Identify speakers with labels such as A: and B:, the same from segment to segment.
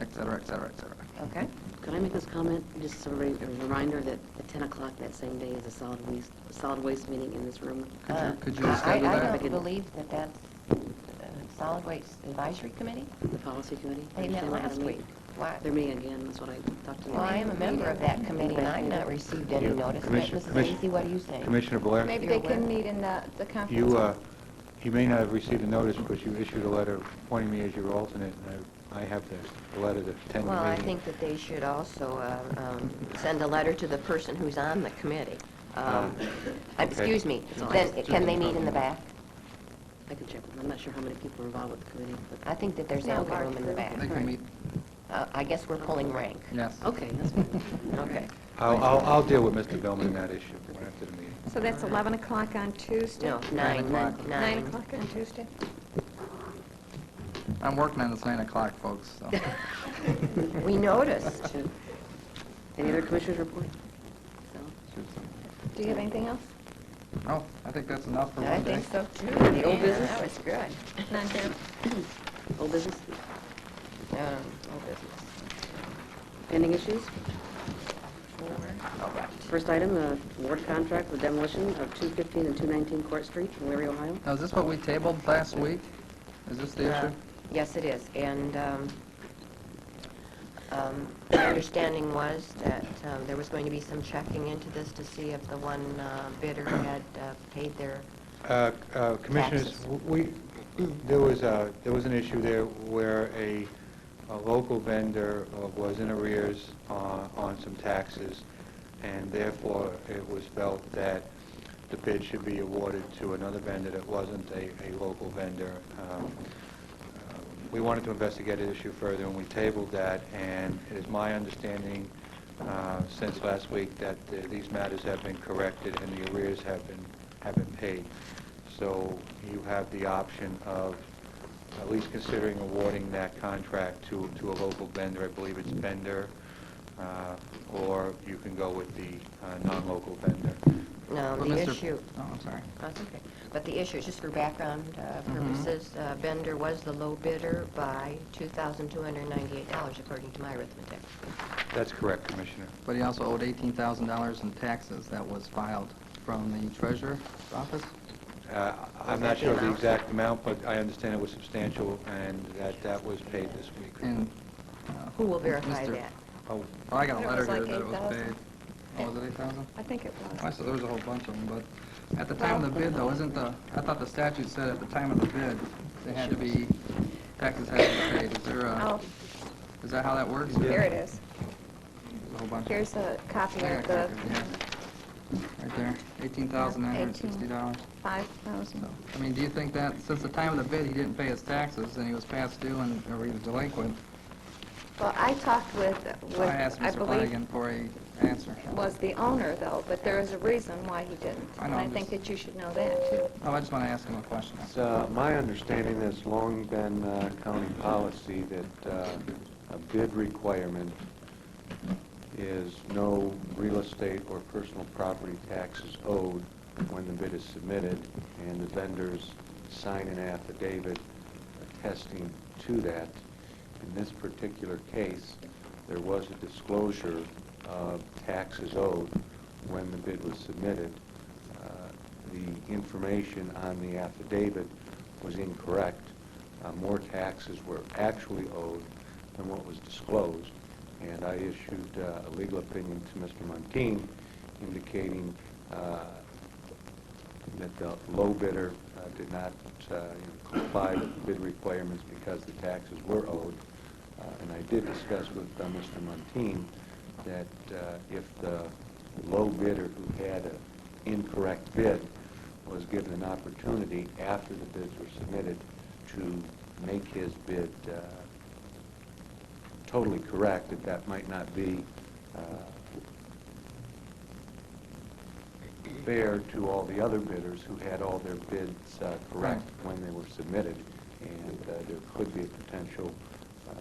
A: et cetera, et cetera, et cetera.
B: Okay.
C: Could I make this comment, just as a re- a reminder that at 10 o'clock that same day is a solid waste, solid waste meeting in this room?
A: Could
B: Uh,
A: you, could you
B: I-
A: reschedule
B: I
A: that?
B: don't believe that that's uh, Solid Waste Advisory Committee?
C: The policy committee?
B: They met
C: Understand they're gonna
B: last
C: meet.
B: week. Why?
C: They're meeting again, that's what I talked to.
B: Well, I am a member of that committee, and I've not received any
D: Yeah,
B: notice. But
D: Commissioner-
B: Mrs.
D: Commissioner-
B: Lacy, what do you think?
D: Commissioner Blair?
E: Maybe
B: You're
E: they
B: aware.
E: can meet in the, the conference.
D: You, uh,
E: room.
D: you may not have received a notice because you issued a letter appointing me as your alternate, and I I have the the letter to attend the meeting.
B: Well, I think that they should also uh, um, send a letter to the person who's on the committee. Um,
D: Ah, okay.
B: Excuse me,
C: all
B: then,
C: right.
B: can they meet in the back?
C: I can check with them. I'm not sure how many people are involved with the committee,
B: I
C: but,
B: think that there's
E: Yeah,
B: ample
E: large
B: room in the
E: group.
B: back.
A: They can meet,
B: Uh, I guess we're pulling rank.
A: yes.
C: okay, that's fine.
B: Okay.
D: I'll, I'll I'll deal with Mr. Billman in that issue after the meeting.
E: So that's 11 o'clock on Tuesday?
B: No, nine, nine.
A: o'clock.
E: Nine o'clock on Tuesday?
A: I'm working on this nine o'clock, folks, so.
B: We noticed.
C: Should- Any other commissioners report? So,
E: Do you have anything else?
A: Oh, I think that's enough for
B: I
A: one day.
B: think so, too.
C: The old
B: Yeah,
C: business?
B: That was good.
E: None here.
C: Old business?
B: Um, old business.
C: Pending issues?
B: Oh,
C: First item, uh, award contract for demolition of 215 and 219 Court Street, Larry, Ohio.
A: Now, is this what we tabled last week? Is this the
B: Uh,
A: issue?
B: Yes, it is, and um, um, my understanding was that um, there was going to be some checking into this to see if the one uh, bidder had uh, paid their,
D: Uh, uh, Commissioners,
B: Taxes.
D: w- we, there was, a- there was an issue there where a, a local vendor uh, was in arrears on, on some taxes, and therefore it was felt that the bid should be awarded to another vendor that wasn't a, a local vendor. Um, uh, We wanted to investigate the issue further, and we tabled that, and it is my understanding uh, since last week that uh, these matters have been corrected and the arrears have been, have been paid. So you have the option of at least considering awarding that contract to, to a local vendor, I believe it's vendor, uh, or you can go with the uh, non-local vendor.
B: no,
A: Well,
B: the
A: Mr.
B: issue.
A: Oh, I'm sorry.
B: That's okay. But the issue, just for background uh,
A: Mhm.
B: purposes, uh, Bender was the low bidder by $2,298, according to my arithmetic.
D: That's correct, Commissioner.
A: But he also owed eighteen thousand dollars in taxes that was filed from the treasurer's office?
D: Uh,
B: Was
D: I'm
B: that
D: not
B: the
D: sure of the
B: amount?
D: exact amount, but I understand it was substantial and that that was paid this week.
A: And, uh...
B: Who will verify
A: Mr.
B: that?
D: Oh,
A: Oh, I got a
E: It
A: letter
E: was
A: here
E: like
A: that it was
E: 8,000.
A: paid. Oh, was it eight thousand?
E: I think it
A: I
E: was.
A: said there was a whole bunch of them, but at the time of the bid, though, isn't the, I thought the statute said at the time of the bid, they had to be, taxes had to be paid. Is there
E: Oh,
A: a, is that how that works?
E: here it is.
A: There's a whole bunch.
E: Here's a copy
A: I
E: of
A: got a copy
E: the
A: of it, yeah. Right there, eighteen thousand nine hundred and sixty dollars.
E: 5,000.
A: I mean, do you think that, since the time of the bid, he didn't pay his taxes, and he was past due and, or he was delinquent,
E: Well, I talked with,
A: so I asked
E: with, I
A: Mr.
E: believe,
A: Flanagan for a answer.
E: was the owner, though, but there is a reason why he didn't.
A: I
E: And
A: know,
E: I
A: I'm
E: think
A: just-
E: that you should know that, too.
A: Oh, I just want to ask him a question.
F: It's uh, my understanding that's long been uh, county policy that uh, a bid requirement is no real estate or personal property taxes owed when the bid is submitted, and the vendors sign an affidavit attesting to that. In this particular case, there was a disclosure of taxes owed when the bid was submitted. Uh, the information on the affidavit was incorrect. Uh, More taxes were actually owed than what was disclosed, and I issued uh, a legal opinion to Mr. Montine indicating uh, that the low bidder uh, did not uh, you know, comply with bid requirements because the taxes were owed. Uh, And I did discuss with uh, Mr. Montine that uh, if the low bidder who had an incorrect bid was given an opportunity after the bids were submitted to make his bid uh, totally correct, that that might not be uh, fair to all the other bidders who had all their bids uh, correct when they were submitted, and uh, there could be a potential uh,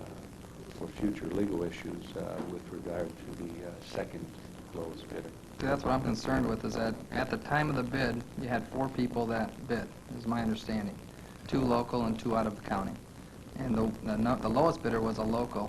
F: for future legal issues uh, with regard to the uh, second lowest bidder.
A: See, that's what I'm concerned with, is that at the time of the bid, you had four people that bid, is my understanding. Two local and two out of the county. And the, the no- the lowest bidder was a local,